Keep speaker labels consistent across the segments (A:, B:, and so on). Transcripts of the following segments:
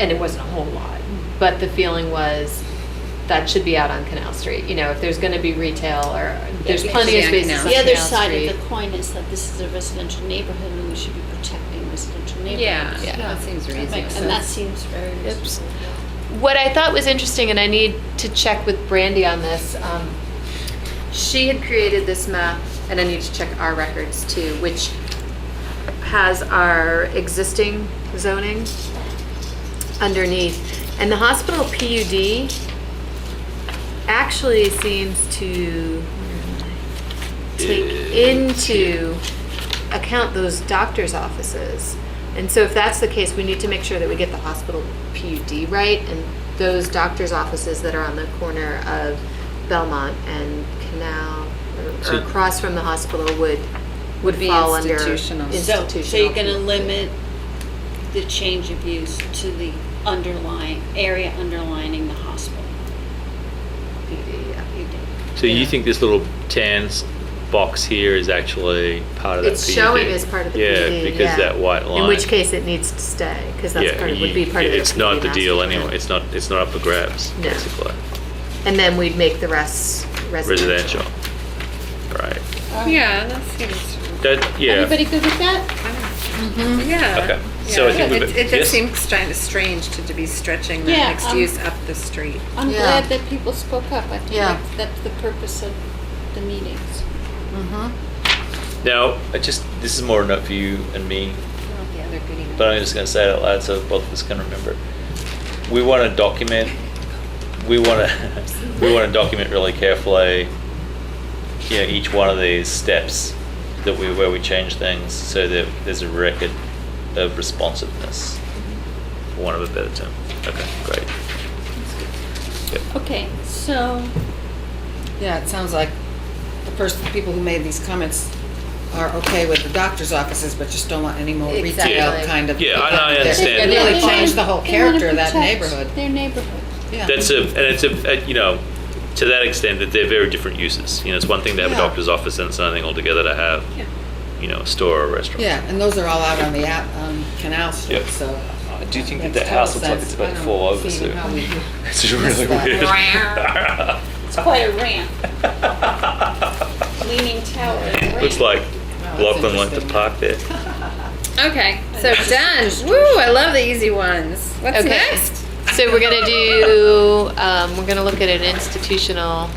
A: and it wasn't a whole lot, but the feeling was that should be out on Canal Street. You know, if there's going to be retail or there's
B: Yeah,
A: plenty of
B: yeah,
A: spaces
B: Canal.
A: on
B: The
C: The other
A: Canal
C: side
A: Street.
C: of the coin is that this is a residential neighborhood and we should be protecting residential neighborhoods.
B: Yeah,
A: Yeah.
B: that seems
C: That
B: reasonable.
C: makes- And that seems very reasonable.
A: What I thought was interesting, and I need to check with Brandy on this, um, she had created this map, and I need to check our records too, which has our existing zoning underneath. And the hospital PUD actually seems to take into account those doctor's offices. And so if that's the case, we need to make sure that we get the hospital PUD right and those doctor's offices that are on the corner of Belmont and Canal or- or
D: So-
A: across from the hospital would, would
B: Be
A: fall under
B: institutional.
A: institutional.
C: So, so you're gonna limit the change of use to the underlying, area underlining the hospital.
A: PUD, yeah.
C: You did.
D: So you
B: Yeah.
D: think this little tan s- box here is actually part of that
A: It's
D: PUD?
A: showing as part of the
D: Yeah,
A: PUD, yeah.
D: because that white line.
A: In which case it needs to stay, because that's
D: yeah,
A: part, of-
D: you-
A: would be part of the.
D: It's not
A: PUD
D: the deal
A: master plan.
D: anyway, it's not, it's not up for grabs,
A: No.
D: basically,
A: And then we'd make the rest residential.
D: residential. Right,
B: Yeah, that seems,
D: that, yeah,
A: Everybody good with that?
B: yeah.
D: Okay. So I
B: Yeah.
D: think we've-
B: It it
D: yes?
B: does seem stri- strange to to be stretching the
C: Yeah,
B: mixed
C: um,
B: use up the street.
C: I'm
A: Yeah.
C: glad that people spoke up. I think
A: Yeah.
C: that's, that's the purpose of the meetings.
D: now, I just, this is more a note for you and me,
B: Yeah, they're good enough.
D: but I'm just gonna say it out loud so both of us can remember. We wanna document, we wanna, we wanna document really carefully, you know, each one of these steps that we, where we change things so that there's a record of responsiveness, for want of a better term. Okay, great.
C: Okay, so,
E: Yeah, it sounds like the person, people who made these comments are okay with the doctor's offices, but just don't want any more
A: Exactly.
E: retail kind of.
D: Yeah, and I understand.
E: It really
C: They wanna-
E: changed the whole
C: they wanna
E: character of that
C: protect
E: neighborhood.
C: Their neighborhood.
E: Yeah.
D: That's a, and it's a, uh, you know, to that extent that they're very different uses. You know, it's one thing to have a
E: Yeah.
D: doctor's office and it's another thing altogether to have,
B: Yeah.
D: you know, a store or a restaurant.
E: Yeah, and those are all out on the, out on Canal Street,
D: Yep.
E: so.
D: I do think
E: makes
D: that that house looks
E: total
D: like
E: sense.
D: it's about
E: I
D: to
E: don't
D: fall over
E: see
D: soon.
E: how we do-
D: It's really
E: It's like-
D: weird.
C: It's quite a ramp. Leaning tower and ramp.
D: Looks like
E: that's
D: Lachlan liked to
E: interesting.
D: park there.
B: Okay, so done. Woo, I love the easy ones. What's
A: Okay.
B: next?
A: So we're gonna do, um, we're gonna look at an institutional.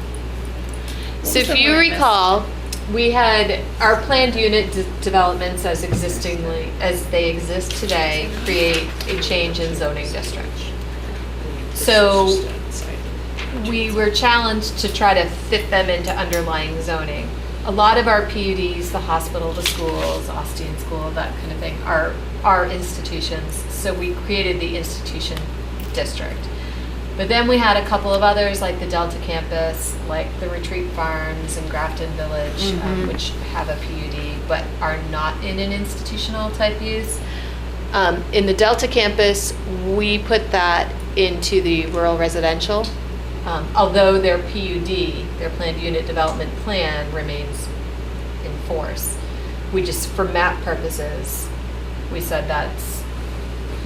A: So if you recall, we had our planned unit de- developments as existingly, as they exist today, create a change in zoning district. So we were challenged to try to fit them into underlying zoning. A lot of our PUDs, the hospital, the schools, Austin School, that kind of thing, are, are institutions. So we created the institution district. But then we had a couple of others, like the Delta campus, like the Retreat Farms and Grafton Village, um, which have a PUD but are not in an institutional type use. Um, in the Delta campus, we put that into the rural residential. Um, although their PUD, their planned unit development plan, remains in force. We just, for map purposes, we said that's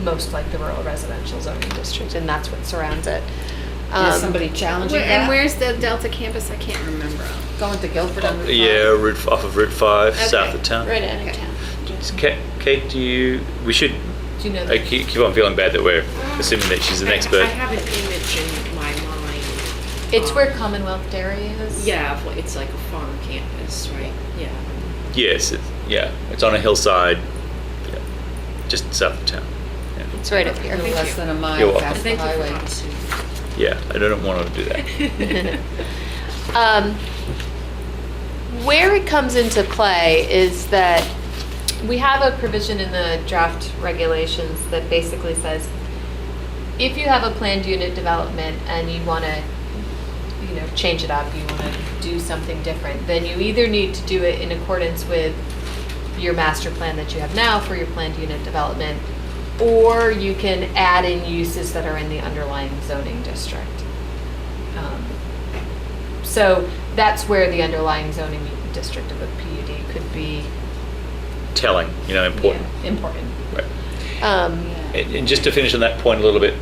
A: most like the rural residential zoning district, and that's what surrounds it.
E: Is
A: Um,
E: somebody challenging
B: And
E: that?
B: where's the Delta campus? I can't remember.
E: Going to Guilford on Route five?
D: Yeah, route, off of Route 5, south
B: Okay,
D: of town.
C: Right out of town.
D: Kate, Kate, do you, we should,
A: Do you know?
D: I
A: that?
D: keep keep on feeling bad that we're assuming that she's an
F: I- I
D: expert.
F: have an image in my mind.
A: It's
F: um,
A: where Commonwealth Dairy is.
F: Yeah, of what- it's like a farm campus, right? Yeah.
D: Yes, it's- yeah, it's on a hillside, yeah, just south of town. Yeah.
A: It's right up here.
E: A little Less than a
D: You're
E: mile
D: welcome.
E: past the
F: Thank you for
E: highway.
F: passing.
D: Yeah, I don't want to do that.
A: Um, Where it comes into play is that we have a provision in the draft regulations that basically says, if you have a planned unit development and you want to, you know, change it up, you want to do something different, then you either need to do it in accordance with your master plan that you have now for your planned unit development, or you can add in uses that are in the underlying zoning district. Um, So that's where the underlying zoning district of a PUD could be
D: Telling, you know,
A: yeah,
D: important.
A: important.
D: Right.
A: Um,
D: And and just to finish on that point a little bit,